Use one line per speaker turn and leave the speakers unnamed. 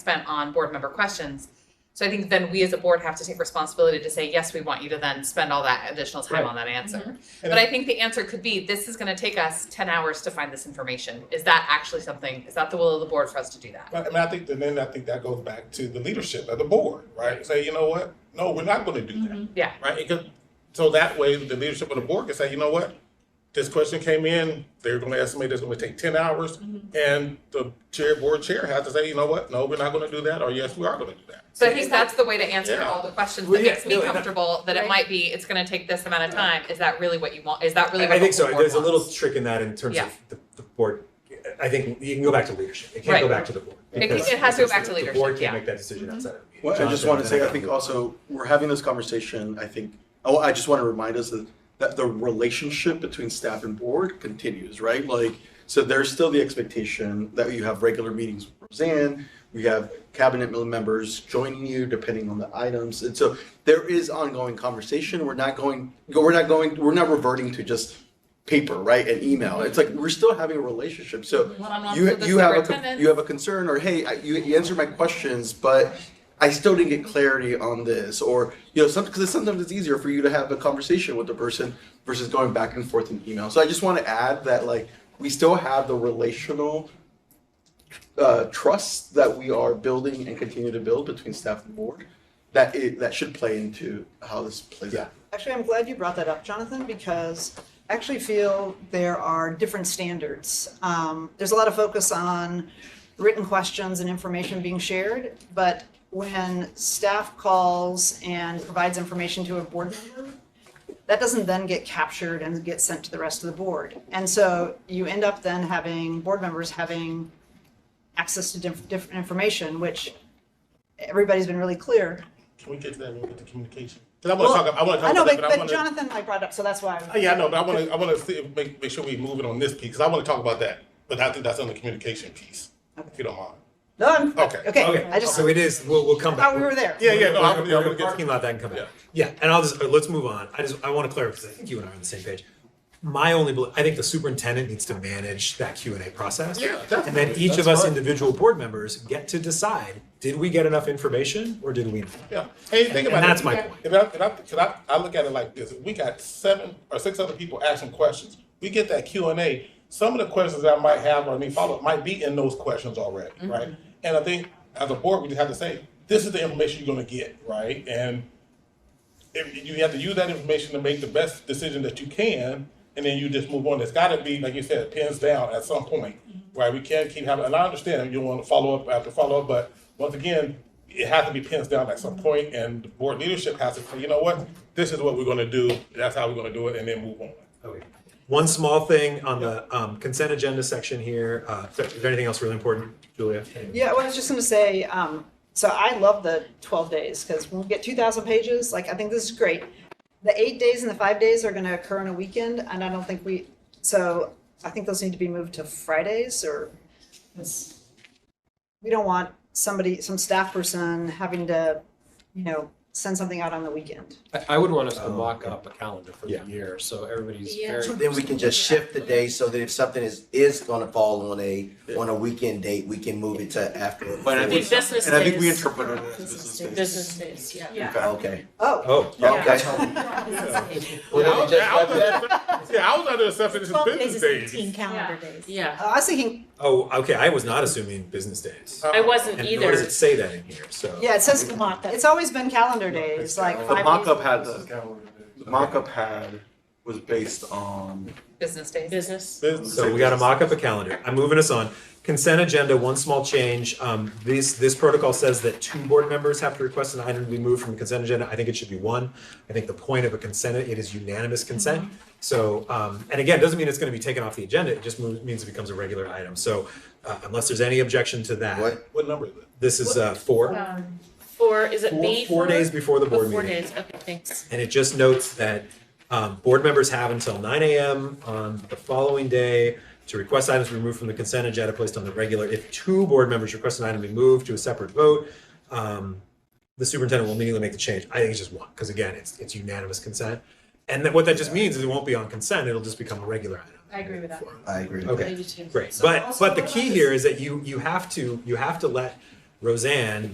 spent on board member questions. So I think then we as a board have to take responsibility to say, yes, we want you to then spend all that additional time
Right.
on that answer.
And
But I think the answer could be, this is gonna take us ten hours to find this information. Is that actually something, is that the will of the board for us to do that?
But, I mean, I think that then I think that goes back to the leadership of the board, right? Say, you know what? No, we're not going to do
Mm-hmm.
that,
Yeah,
right? It could, so that way, the leadership of the board can say, you know what? This question came in. They're going to estimate it's going to take ten hours,
Mm-hmm.
and the chair board chair has to say, you know what? No, we're not going to do that, or yes, we are going to do that.
so I think that's the way to answer
Yeah.
all the questions
Well,
that
yeah,
makes me
no, and I-
comfortable, that it
Right.
might be, it's gonna take this amount of time. Is that really what you want? Is that really
I
what
I
the
think
whole
so.
board
There's a little
wants?
trick in that in terms
Yeah.
of the, the board. I think you can go back to leadership. It can't go
Right.
back to the board.
It can-
because-
it has to go
because
back to
the- The
leadership,
board
yeah. Mm-hmm.
can't make that decision outside of.
Well, I just
Jonathan,
want to say, I
gotta
think
go.
also, we're having this conversation, I think, oh, I just want to remind us that, that the relationship between staff and board continues, right? Like, so there's still the expectation that you have regular meetings with Roseanne, we have cabinet mem- members joining you depending on the items. And so there is ongoing conversation. We're not going, we're not going, we're not reverting to just paper, right, and email. It's like, we're still having a relationship. So
One-on-ones
you,
with the
you have a, con-
superintendent.
you have a concern or, hey, I- you, you answered my questions, but I still didn't get clarity on this, or, you know, some, because sometimes it's easier for you to have a conversation with the person versus going back and forth in email. So I just want to add that, like, we still have the relational uh, trust that we are building and continue to build between staff and board. That it, that should play into how this plays out.
Actually, I'm glad you brought that up, Jonathan, because I actually feel there are different standards. Um, there's a lot of focus on written questions and information being shared, but when staff calls and provides information to a board member, that doesn't then get captured and get sent to the rest of the board. And so you end up then having board members having access to diff- different information, which everybody's been really clear.
Can we get to that when we get to communication? 'Cause I want to talk. I want to talk
I know,
about that,
but,
I
but
wanna-
Jonathan, I brought up, so that's why. I'm-
Oh, Yeah, I know, but I want to. I want to make make sure we move it on this piece because I want to talk about that. But I think that's on the communication piece, if you don't mind.
No, I'm,
Okay.
okay,
Okay,
I just
so it is, we'll, we'll come back.
Oh,
thought we were there.
Yeah, yeah. No, I'm,
We're
yeah, I'm
we're
gonna get-
talking about that and come back. Yeah, and I'll just, let's move on. I just, I want to clarify, because I think you and I are on the same page. My only, bel- I think the superintendent needs to manage that Q and A process.
Yeah,
And then
definitely.
each of
That's
us
fine.
individual board members get to decide, did we get enough information or did we not?
Yeah, and you think about
And
it,
that's
if
my
we got-
point.
If I, if I, 'cause I, I look at it like this: if we got seven or six other people asking questions, we get that Q and A. Some of the questions that I might have or need follow up might be in those questions already, right? And I think as a board, we just have to say, this is the information you're going to get, right? And if you have to use that information to make the best decision that you can, and then you just move on. It's got to be, like you said, pins down at some point, right? We can't keep having, and I understand you want to follow up after follow up, but once again, it has to be pins down at some point, and the board leadership has to say, you know what, this is what we're going to do, that's how we're going to do it, and then move on.
Okay. One small thing on the um, consent agenda section here, uh, is there- is there anything else really important, Julia?
Yeah, well, I was just gonna say, um, so I love the twelve days, because when we get two thousand pages, like, I think this is great. The eight days and the five days are gonna occur in a weekend, and I don't think we, so I think those need to be moved to Fridays, or it's- we don't want somebody, some staff person having to, you know, send something out on the weekend.
I, I would want us to
Oh,
mock
okay.
up a calendar for
Yeah.
the year, so everybody's
Yeah.
very.
So then we can just shift the day so that if something is, is gonna fall on a, on a weekend date, we can move it to after.
But I think,
business
and I think we
days.
interpreted it as business days.
Business days, yeah.
In fact.
Okay.
Oh,
Oh,
Okay. Well,
Yeah, I was,
then we just
yeah, I was
left that.
under- yeah, I was under the assumption this is business days.
calendar
days.
Yeah,
I was thinking,
oh, okay, I was not assuming business days.
Uh,
I wasn't
And nor does
either.
it say that in here, so.
yeah, it says, it's always been calendar days, like five
The
days.
mock-up had, the mock-up had was based on,
business days.
Business.
business
So we
days.
gotta mock up a calendar. I'm moving us on. Consent agenda, one small change. Um, this, this protocol says that two board members have to request an item to be moved from the consent agenda. I think it should be one. I think the point of a consent, it is unanimous consent.
Mm-hmm.
So, um, and again, it doesn't mean it's gonna be taken off the agenda. It just mo- means it becomes a regular item. So, uh, unless there's any objection to that,
What?
What number is it?
this is, uh, four,
Um, Four, is it
Four-
B?
four days before the
Oh,
board
Four
meeting.
days, okay, thanks.
And it just notes that um, board members have until 9 AM on the following day to request items removed from the consent agenda placed on the regular. If two board members request an item be moved to a separate vote, um, the superintendent will immediately make the change. I think it's just one, because again, it's, it's unanimous consent. And that, what that just means is it won't be on consent, it'll just become a regular item.
I agree with that.
I agree.
Okay.
Maybe two.
Great,
So
but
also
but the
what
key
about
here is that you you have to you have to let Roseanne